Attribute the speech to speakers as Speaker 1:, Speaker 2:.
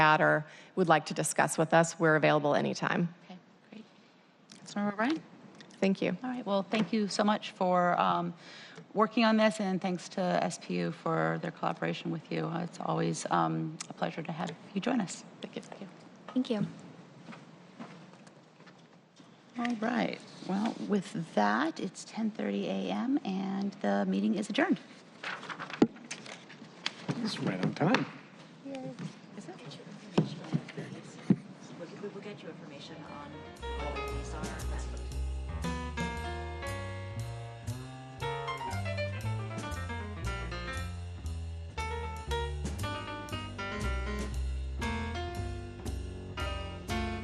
Speaker 1: at or would like to discuss with us, we're available anytime.
Speaker 2: Okay, great. Councilmember O'Brien?
Speaker 1: Thank you.
Speaker 2: All right, well, thank you so much for um, working on this, and thanks to SPU for their collaboration with you. Uh, It's always um, a pleasure to have you join us. Thank you.
Speaker 3: Thank you.
Speaker 2: All right, well, with that, it's 10:30 a.m., and the meeting is adjourned.
Speaker 4: It's right on time.
Speaker 5: We'll we'll get you information on what these are.